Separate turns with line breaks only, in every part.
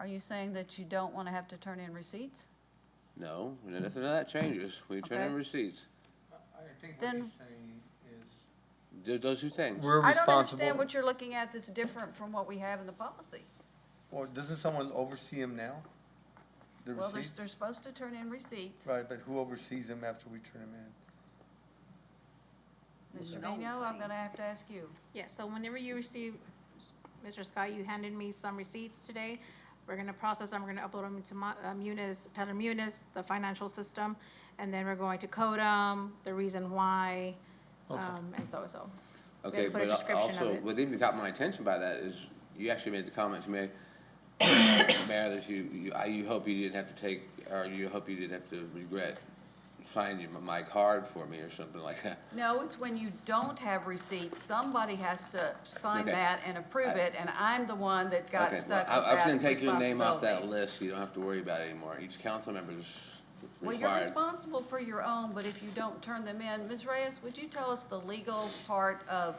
Are you saying that you don't want to have to turn in receipts?
No, nothing of that changes. We turn
Okay.
in receipts.
I think what
Then-
he's saying is,
Do those two things.
We're
I don't
responsible.
understand what you're looking at that's different from what we have in the policy.
Well, doesn't someone oversee them now? The
Well, they're,
receipts?
they're supposed to turn in receipts.
Right, but who oversees them after we turn them in?
Mr. Vino, I'm gonna have to ask you.
Yeah, so whenever you receive, Mr. Scott, you handed me some receipts today. We're gonna process them, we're gonna upload them into Mo- uh, Munis, Tyler Munis, the financial system, and then we're going to code them, the reason why, um, and so and so.
Okay,
put a
but al-
description of
also,
it.
what even caught my attention by that is you actually made the comment to me, Mayor, that you, you, I, you hope you didn't have to take, or you hope you didn't have to regret signing my- my card for me or something like that.
No, it's when you don't have receipts, somebody has to sign
Okay.
that and approve it, and I'm the one that got
Okay,
stuck with that
well, I, I was gonna take your name off that
responsibility.
list. You don't have to worry about it anymore. Each council member is
Well, you're
required.
responsible for your own, but if you don't turn them in, Ms. Reyes, would you tell us the legal part of,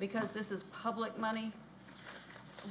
because this is public money?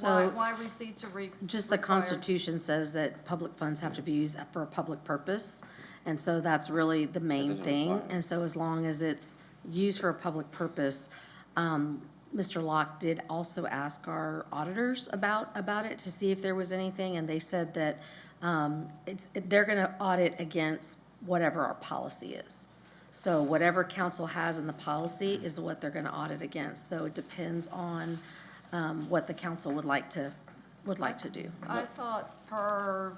Why,
So-
why receipts are re-
Just the
required?
Constitution says that public funds have to be used for a public purpose, and so that's really the main
doesn't
thing.
require it.
And so as long as it's used for a public purpose, um, Mr. Locke did also ask our auditors about, about it to see if there was anything, and they said that, um, it's, they're gonna audit against whatever our policy is. So whatever council has in the policy is what they're gonna audit against, so it depends on, um, what the council would like to, would like to do.
I thought per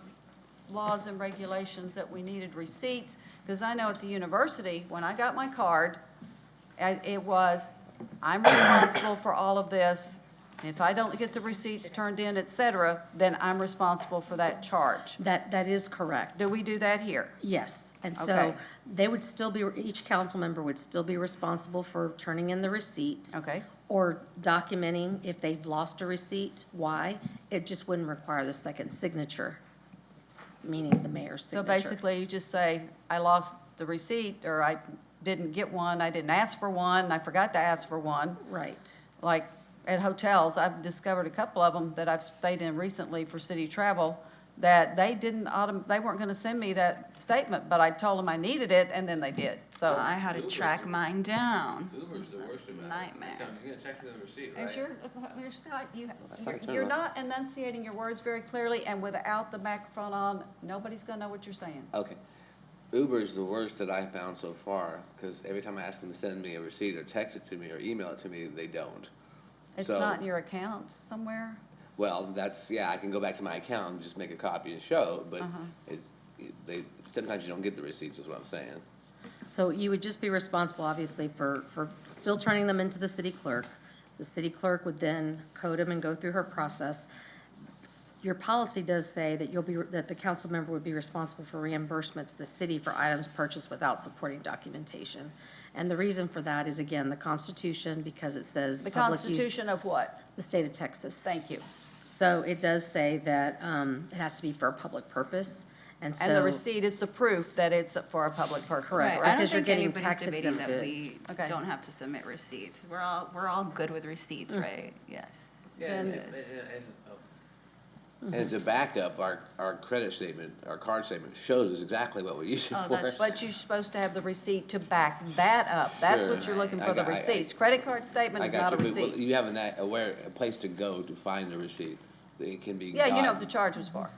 laws and regulations that we needed receipts, because I know at the university, when I got my card, I- it was, I'm responsible for all of this. If I don't get the receipts turned in, et cetera, then I'm responsible for that charge.
That, that is correct,
Do we do that here?
yes. And so
Okay.
they would still be, each council member would still be responsible for turning in the receipt.
Okay.
Or documenting if they've lost a receipt, why. It just wouldn't require the second signature, meaning the mayor's
So
signature.
basically, you just say, I lost the receipt, or I didn't get one, I didn't ask for one, I forgot to ask for one.
Right,
like at hotels, I've discovered a couple of them that I've stayed in recently for city travel, that they didn't autom, they weren't gonna send me that statement, but I told them I needed it, and then they did, so.
I had to track mine down.
Uber's the worst about it.
Nightmare.
So You're gonna check the receipt,
And
right?
you're, you're Scott, you,
I
you're,
turned
you're
it.
not enunciating your words very clearly, and without the microphone on, nobody's gonna know what you're saying.
Okay. Uber is the worst that I've found so far, because every time I ask them to send me a receipt or text it to me or email it to me, they don't.
It's
So-
not in your account somewhere?
Well, that's, yeah, I can go back to my account and just make a copy and show, but
Uh-huh.
it's, they, sometimes you don't get the receipts, is what I'm saying.
so you would just be responsible, obviously, for, for still turning them into the city clerk. The city clerk would then code them and go through her process. Your policy does say that you'll be, that the council member would be responsible for reimbursement to the city for items purchased without supporting documentation. And the reason for that is, again, the Constitution, because it says
The
public use-
Constitution of what?
The state of Texas.
Thank you.
So it does say that um, it has to be for a public purpose, and so.
And the receipt is the proof that it's for a public purpose,
Correct.
correct?
Right,
I don't
because you're
think
getting
anybody's
tax
debating that
exempt
we
goods.
Okay.
don't have to submit receipts. We're all, we're all good with receipts,
Mm.
right? Yes.
Then-
Yes.
As a backup, our, our credit statement, our card statement shows us exactly what we use it
Oh,
for.
that's-
But you're supposed to have the receipt to back that up. That's what
Sure.
you're looking
I
for, the
got- I- I-
receipts. Credit card statement
I
is
got
not a
you, but well,
receipt.
you have an, a- a where, a place to go to find the receipt. It can be.
Yeah, you know what
gotten.
the charge was for.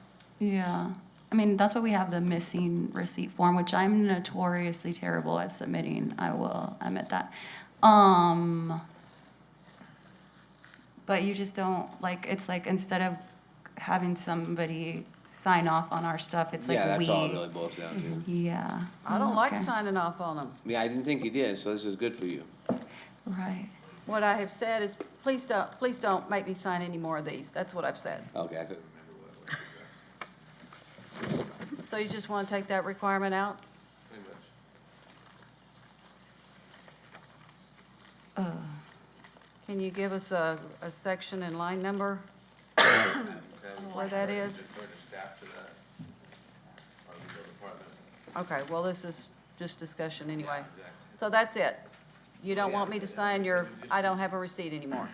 Yeah. I mean, that's why we have the missing receipt form, which I'm notoriously terrible at submitting. I will admit that. Um, but you just don't, like, it's like instead of having somebody sign off on our stuff, it's like
Yeah,
we.
that's all it really boils down to.
Yeah. Mm,
I don't like
Okay.
signing off on them.
Yeah, I didn't think you did, so this is good for you.
Right.
What I have said is, please don't, please don't make me sign any more of these. That's what I've said.
Okay, I couldn't remember what it was.
So you just want to take that requirement out?
Pretty much.
Uh. Can you give us a, a section and line number? Where that is? Okay, well, this is just discussion anyway. So that's it. You don't want me to sign your, I don't have a receipt anymore.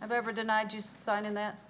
Have I ever denied you signing that?